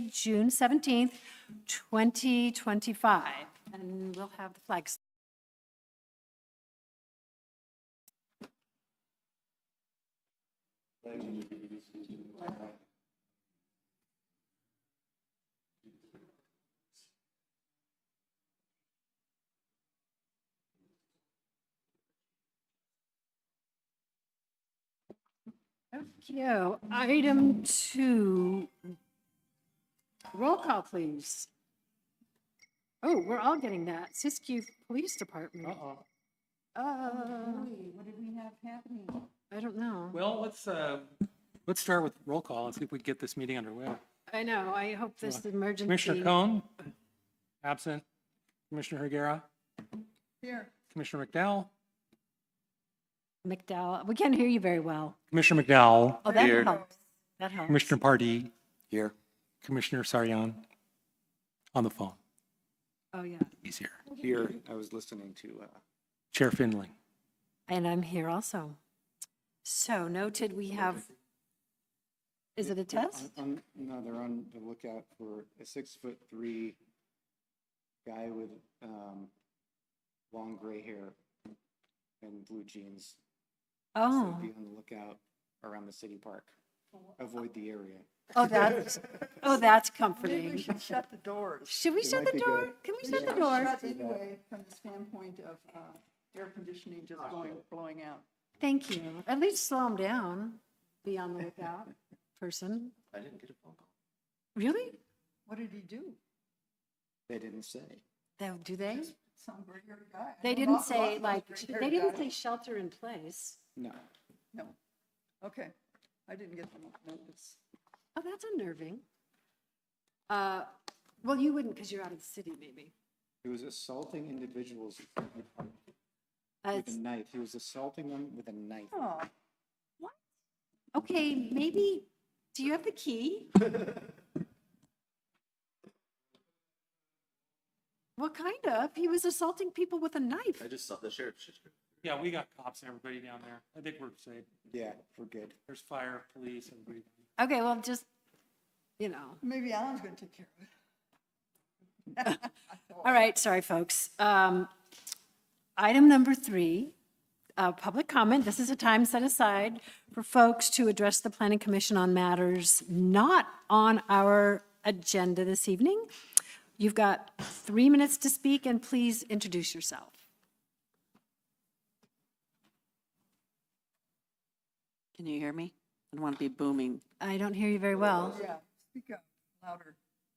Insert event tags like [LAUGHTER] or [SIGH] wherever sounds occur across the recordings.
June 17th, 2025. And we'll have the flags. Okay, item two. Roll call, please. Oh, we're all getting that. Siskiyou Police Department. Uh-oh. Oh. What did we have happening? I don't know. Well, let's, uh, let's start with roll call and see if we can get this meeting underway. I know, I hope this emergency. Commissioner Cohn, absent. Commissioner Hergera, Here. Commissioner McDowell, McDowell, we can't hear you very well. Commissioner McDowell, Oh, that helps. That helps. Commissioner Pardee, Here. Commissioner Sarian on the phone. Oh, yeah. He's here. Here, I was listening to, uh, Chair Finley. And I'm here also. So noted, we have, is it a test? on- on- No, they're on the lookout for a six-foot-three guy with, um, long gray hair and blue jeans. So Oh, Be on the lookout around the city park. Avoid the area. oh, that's, oh, that's comforting. Maybe we should shut the doors. Should we shut the might be door? good. Can we We [LAUGHS] shut the should door? shut Anyway, from the standpoint of uh, air conditioning just blowing, blowing out. Thank you. At least slow them down. Be on the lookout, person. I didn't get a phone call. Really? What did he do? They didn't say. Though, do they? Some gray-haired guy. I They know didn't lots- lots say of like, gray-haired they didn't say guys. shelter in place. No. No. Okay. I didn't get the notice. Oh, that's unnerving. Uh, well, you wouldn't because you're out of the city, maybe. He was assaulting individuals with Uh, a knife. He was assaulting them with a knife. Oh, okay, maybe, do you have the key? Well, kind of. He was assaulting people with a knife. just saw the sheriff's. Yeah, we got cops, everybody down there. I think we're safe. Yeah, we're good. There's fire, police, everybody. Okay, well, just, you know. maybe Alan's going to take care of it. All right, sorry, folks. Um, Item number three, uh, public comment. This is a time set aside for folks to address the planning commission on matters not on our agenda this evening. You've got three minutes to speak, and please introduce yourself. Can you hear me? I don't want to be booming. I don't hear you very well. Yeah, speak up louder.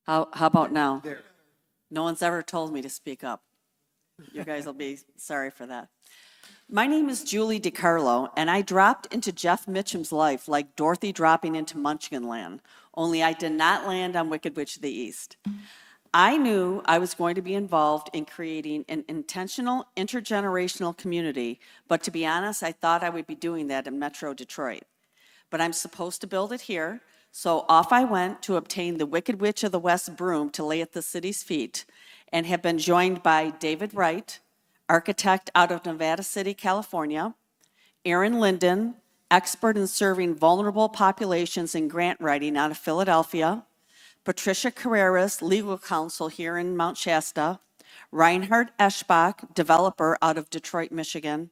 How, how about now? No one's ever told me to speak up. You guys will be sorry for that. My name is Julie DiCarlo, and I dropped into Jeff Mitchum's life like Dorothy dropping into Munchkinland, only I did not land on Wicked Witch of the East. I knew I was going to be involved in creating an intentional intergenerational community, but to be honest, I thought I would be doing that in Metro Detroit. But I'm supposed to build it here, so off I went to obtain the Wicked Witch of the West broom to lay at the city's feet, and have been joined by David Wright, architect out of Nevada City, California, Aaron Linden, expert in serving vulnerable populations in grant writing out of Philadelphia, Patricia Carreras, legal counsel here in Mount Shasta, Reinhard Eschbach, developer out of Detroit, Michigan,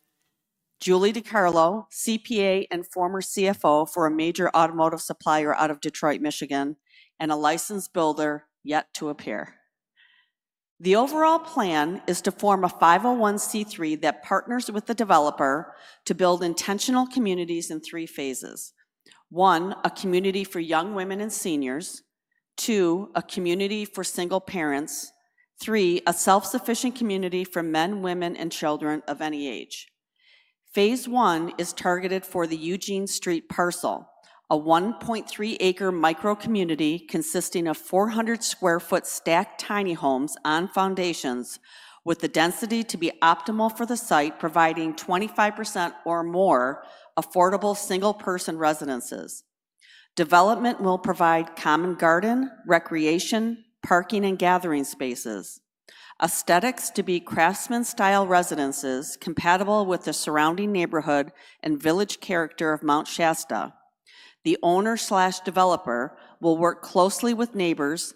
Julie DiCarlo, CPA and former CFO for a major automotive supplier out of Detroit, Michigan, and a licensed builder yet to appear. The overall plan is to form a 501c3 that partners with the developer to build intentional communities in three phases. One, a community for young women and seniors. Two, a community for single parents. Three, a self-sufficient community for men, women, and children of any age. Phase one is targeted for the Eugene Street parcel, a 1.3 acre micro-community consisting of 400 square foot stacked tiny homes on foundations with the density to be optimal for the site, providing 25% or more affordable single-person residences. Development will provide common garden, recreation, parking, and gathering spaces aesthetics to be craftsman-style residences compatible with the surrounding neighborhood and village character of Mount Shasta. The owner slash developer will work closely with neighbors